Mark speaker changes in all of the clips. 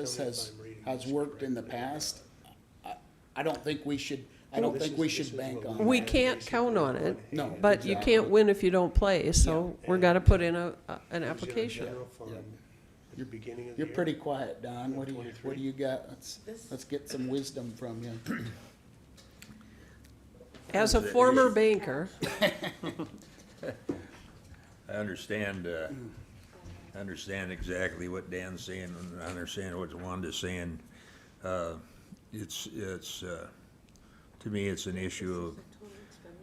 Speaker 1: this has, has worked in the past, I, I don't think we should, I
Speaker 2: No,
Speaker 1: don't
Speaker 2: this
Speaker 1: think
Speaker 2: is-
Speaker 1: we
Speaker 2: this is
Speaker 1: should bank
Speaker 2: what
Speaker 1: on
Speaker 2: we-
Speaker 1: that.
Speaker 3: We can't count on it.
Speaker 1: No,
Speaker 3: But you
Speaker 1: exactly.
Speaker 3: can't win if you don't play, so we're gonna put in a, a-
Speaker 2: It was in
Speaker 3: an
Speaker 2: a
Speaker 3: application.
Speaker 2: general fund
Speaker 1: Yeah.
Speaker 2: At the beginning of the
Speaker 1: You're
Speaker 2: year.
Speaker 1: pretty quiet, Don. What do you, what do you got? Let's,
Speaker 4: This-
Speaker 1: let's get some wisdom from you.
Speaker 3: As a former banker,
Speaker 5: I understand, uh, I understand exactly what Dan's saying, and I understand what Wanda's saying. Uh, It's, it's, uh, to me, it's an issue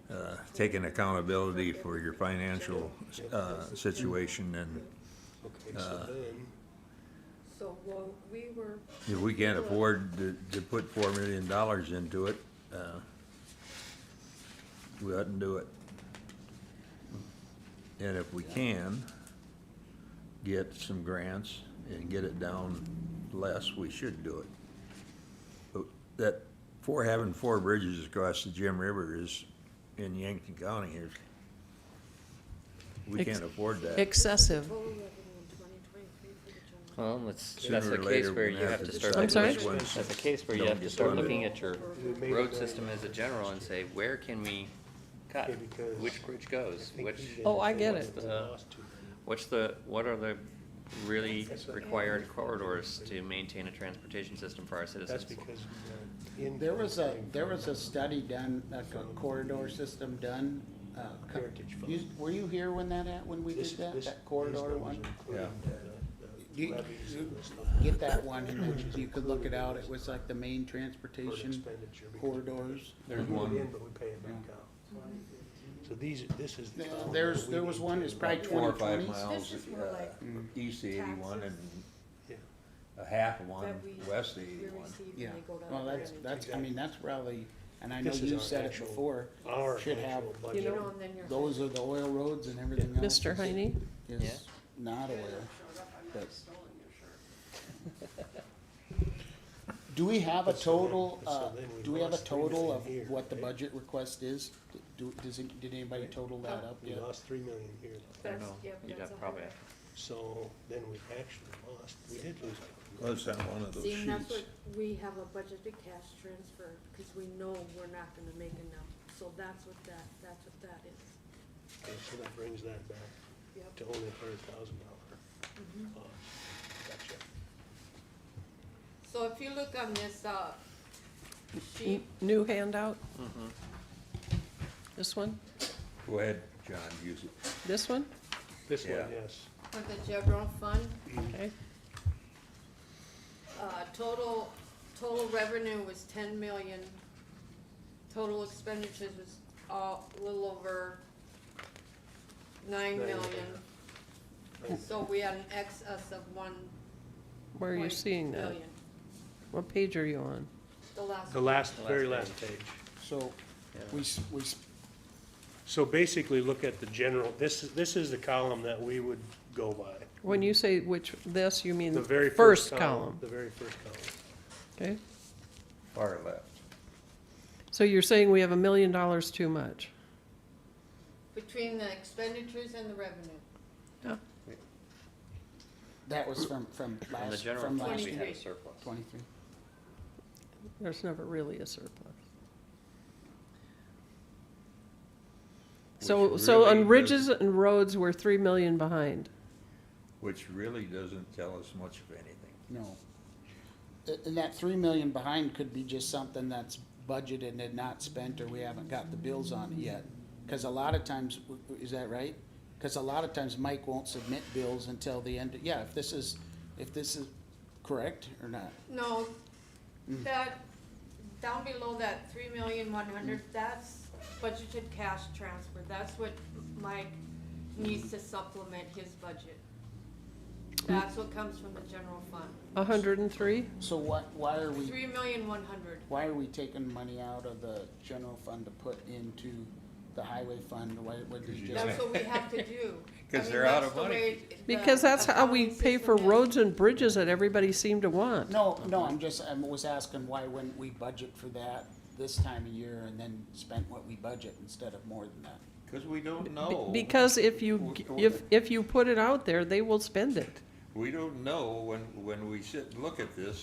Speaker 5: of uh, taking accountability for your financial uh, situation, and
Speaker 2: Okay, so then,
Speaker 4: So, well, we were,
Speaker 5: if we can't afford to, to put four million dollars into it, uh, we oughtn't do it. And if we can, get some grants and get it down less, we should do it. But That, for having four bridges across the Jim River is, in Yankton County is, we
Speaker 3: Ex-
Speaker 5: can't afford that.
Speaker 3: excessive.
Speaker 4: total revenue in twenty twenty-three for the general.
Speaker 6: Well, that's, that's
Speaker 5: Sooner
Speaker 6: a
Speaker 5: or
Speaker 6: case
Speaker 5: later,
Speaker 6: where
Speaker 5: we're
Speaker 6: you
Speaker 5: gonna
Speaker 6: have to start.
Speaker 5: decide
Speaker 3: I'm sorry?
Speaker 5: which ones
Speaker 6: That's a case where you
Speaker 5: don't
Speaker 6: have to
Speaker 5: get
Speaker 6: start
Speaker 5: funded.
Speaker 6: looking at your
Speaker 2: We made
Speaker 6: road
Speaker 2: another-
Speaker 6: system as a general and say, where can we cut?
Speaker 2: Okay, because
Speaker 6: Which bridge
Speaker 2: I
Speaker 6: goes?
Speaker 2: think we
Speaker 6: Which,
Speaker 2: did
Speaker 3: Oh, I
Speaker 2: for
Speaker 3: get
Speaker 2: what's
Speaker 3: it.
Speaker 2: the
Speaker 6: Uh,
Speaker 2: last two.
Speaker 6: what's the, what are the really required corridors to maintain a transportation system for our
Speaker 2: That's
Speaker 6: citizens?
Speaker 2: because. of the
Speaker 1: There was a,
Speaker 2: income
Speaker 1: there
Speaker 2: thing
Speaker 1: was a study done, like a corridor system done. uh, co-
Speaker 2: Heritage Fund.
Speaker 1: you- Were you here when that, at- when we
Speaker 2: from-
Speaker 1: did
Speaker 2: this-
Speaker 1: that,
Speaker 2: this-
Speaker 1: that corridor
Speaker 2: these
Speaker 1: one?
Speaker 2: numbers include
Speaker 5: Yeah.
Speaker 2: the- the
Speaker 1: You-
Speaker 2: levies and the stuff.
Speaker 1: Get that one, and you could look it out. It was like the main transportation
Speaker 2: Expenditure because-
Speaker 1: corridors.
Speaker 5: There's
Speaker 2: We put
Speaker 5: one.
Speaker 2: in, but we pay it back out. So these, this is. the
Speaker 1: Uh,
Speaker 2: total
Speaker 1: There's,
Speaker 2: that we
Speaker 1: there was
Speaker 2: need
Speaker 1: one
Speaker 2: to-
Speaker 1: that's probably
Speaker 5: four or
Speaker 1: twenty
Speaker 5: five
Speaker 1: twenties.
Speaker 5: miles,
Speaker 4: This is more
Speaker 5: uh,
Speaker 4: like
Speaker 5: east of eighty-one and
Speaker 4: taxes
Speaker 2: Yeah.
Speaker 5: a half of one
Speaker 4: That we, we
Speaker 5: west of
Speaker 4: receive
Speaker 5: eighty-one.
Speaker 4: when they
Speaker 1: Yeah,
Speaker 4: go down.
Speaker 1: well,
Speaker 4: the
Speaker 1: that's,
Speaker 4: revenue.
Speaker 1: that's, I mean, that's probably, and I know
Speaker 2: This is
Speaker 1: you
Speaker 2: our
Speaker 1: said it
Speaker 2: actual-
Speaker 1: before,
Speaker 2: Our
Speaker 1: should have,
Speaker 2: actual
Speaker 4: You
Speaker 2: budget.
Speaker 4: know, and then your.
Speaker 1: those are the oil roads and everything else.
Speaker 3: Mr.
Speaker 1: is-
Speaker 3: Heine,
Speaker 6: Yeah.
Speaker 1: Is not oil. but- Do we have a
Speaker 2: But so then-
Speaker 1: total,
Speaker 2: but so
Speaker 1: uh,
Speaker 2: then we
Speaker 1: do we have a
Speaker 2: lost three
Speaker 1: total
Speaker 2: million
Speaker 1: of
Speaker 2: here,
Speaker 1: what the
Speaker 2: right?
Speaker 1: budget request is? Do, does, it- did anybody total that up
Speaker 2: Oh. We
Speaker 1: yet?
Speaker 2: lost three million here, though.
Speaker 6: I don't know,
Speaker 4: That's- yeah,
Speaker 6: you'd
Speaker 4: that's
Speaker 6: have
Speaker 4: a
Speaker 6: probably,
Speaker 4: hundred.
Speaker 2: so then we actually lost, we did lose. like-
Speaker 5: Well, it's on one of those
Speaker 4: See, and that's
Speaker 5: sheets.
Speaker 4: what, we have a budgeted cash transfer, cause we know we're not gonna make enough, so that's what that, that's what that is.
Speaker 2: Okay, So that brings that back
Speaker 4: Yep.
Speaker 2: to only a hundred thousand dollar
Speaker 3: Mm-hmm.
Speaker 2: cost. Gotcha.
Speaker 7: So if you look on this, uh,
Speaker 3: n-
Speaker 7: sheet,
Speaker 3: e,
Speaker 1: Mm.
Speaker 3: new handout? This one,
Speaker 5: Go ahead, John, use it.
Speaker 3: this one,
Speaker 2: This one,
Speaker 5: Yeah.
Speaker 2: yes.
Speaker 7: for the general fund,
Speaker 3: okay,
Speaker 7: uh, total, total revenue was ten million. Total expenditures was, uh, a little over nine
Speaker 2: Nine.
Speaker 7: million. So we had an excess of one.
Speaker 3: where are you
Speaker 7: point
Speaker 3: seeing that?
Speaker 7: million.
Speaker 3: What page are you on?
Speaker 7: The last.
Speaker 2: The last,
Speaker 6: The last
Speaker 2: very
Speaker 6: page.
Speaker 2: last page.
Speaker 1: So, we, s- we, s-
Speaker 2: So basically, look at the general, this, is this is the column that we would go by.
Speaker 3: When you say which, this, you mean
Speaker 2: The very
Speaker 3: first column,
Speaker 2: The very first column.
Speaker 3: okay?
Speaker 5: Far left.
Speaker 3: So you're saying we have a million dollars too much?
Speaker 7: Between the expenditures and the revenue,
Speaker 3: Yeah.
Speaker 1: that was from, from
Speaker 6: from the
Speaker 1: last,
Speaker 6: general
Speaker 1: from
Speaker 6: fund,
Speaker 1: last
Speaker 6: we
Speaker 1: year,
Speaker 6: have a
Speaker 7: year.
Speaker 6: surplus.
Speaker 1: twenty-three.
Speaker 3: There's never really a surplus. So,
Speaker 5: Which
Speaker 3: so
Speaker 5: really
Speaker 3: on ridges
Speaker 5: doesn't-
Speaker 3: and roads, we're three million behind.
Speaker 5: Which really doesn't tell us much of anything.
Speaker 1: No. A- And that three million behind could be just something that's budgeted and not spent, or we haven't got the bills on it yet. Cause a lot of times, w- w- is that right? Cause a lot of times Mike won't submit bills until the end, yeah, if this is, if this is correct or not.
Speaker 7: no, that, down below that three million one hundred, that's budgeted cash transfer, that's what Mike needs to supplement his budget. That's what comes from the general fund,
Speaker 3: A hundred and three?
Speaker 1: So what, why are we,
Speaker 7: three million one hundred.
Speaker 1: why are we taking money out of the general fund to put into the highway fund? Why, what did you just?
Speaker 7: That's what we have to do. I
Speaker 5: 'Cause
Speaker 7: mean,
Speaker 5: they're out
Speaker 7: that's
Speaker 5: of
Speaker 7: the
Speaker 5: money.
Speaker 7: way the
Speaker 3: Because that's how we
Speaker 7: accounting
Speaker 3: pay for
Speaker 7: system is.
Speaker 3: roads and bridges that everybody seemed to want.
Speaker 1: No, no, I'm just, I was asking why wouldn't we budget for that this time of year and then spent what we budget instead of more than that?
Speaker 5: Cause we don't
Speaker 3: Be- Because if you, g- if, if you put it out there, they will spend it.
Speaker 5: we don't know when, when we sit and look at this,